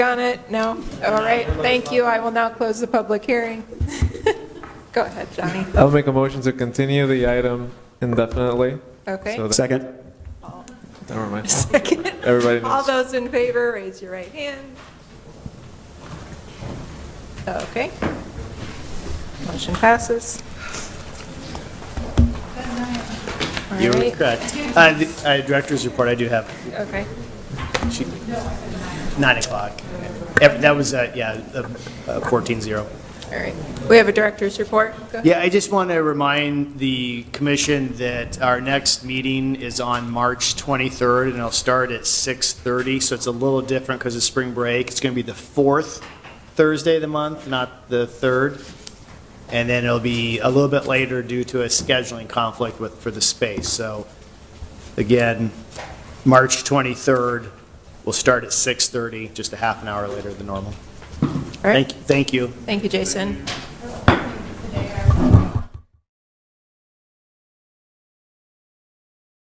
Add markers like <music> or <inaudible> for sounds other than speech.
on it? No? All right, thank you. I will now close the public hearing. <laughs> Go ahead, Johnny. I'll make a motion to continue the item indefinitely. Okay. <laughs> So that- Second? Never mind. Second. Everybody All knows. those in favor, raise your right hand. Okay. Motion passes. All You're right, correct. Uh, the- uh, Director's report, I do have, okay. she- nine o'clock. Ev- That was, uh, yeah, uh, uh, 14-0. All right. We have a director's report. Go ahead. Yeah, I just want to remind the commission that our next meeting is on March 23rd, and it'll start at 6:30, so it's a little different because of spring break. It's going to be the fourth Thursday of the month, not the third, and then it'll be a little bit later due to a scheduling conflict with, for the space. So again, March 23rd, we'll start at 6:30, just a half an hour later than normal. All right. Thank, thank you. Thank you, Jason.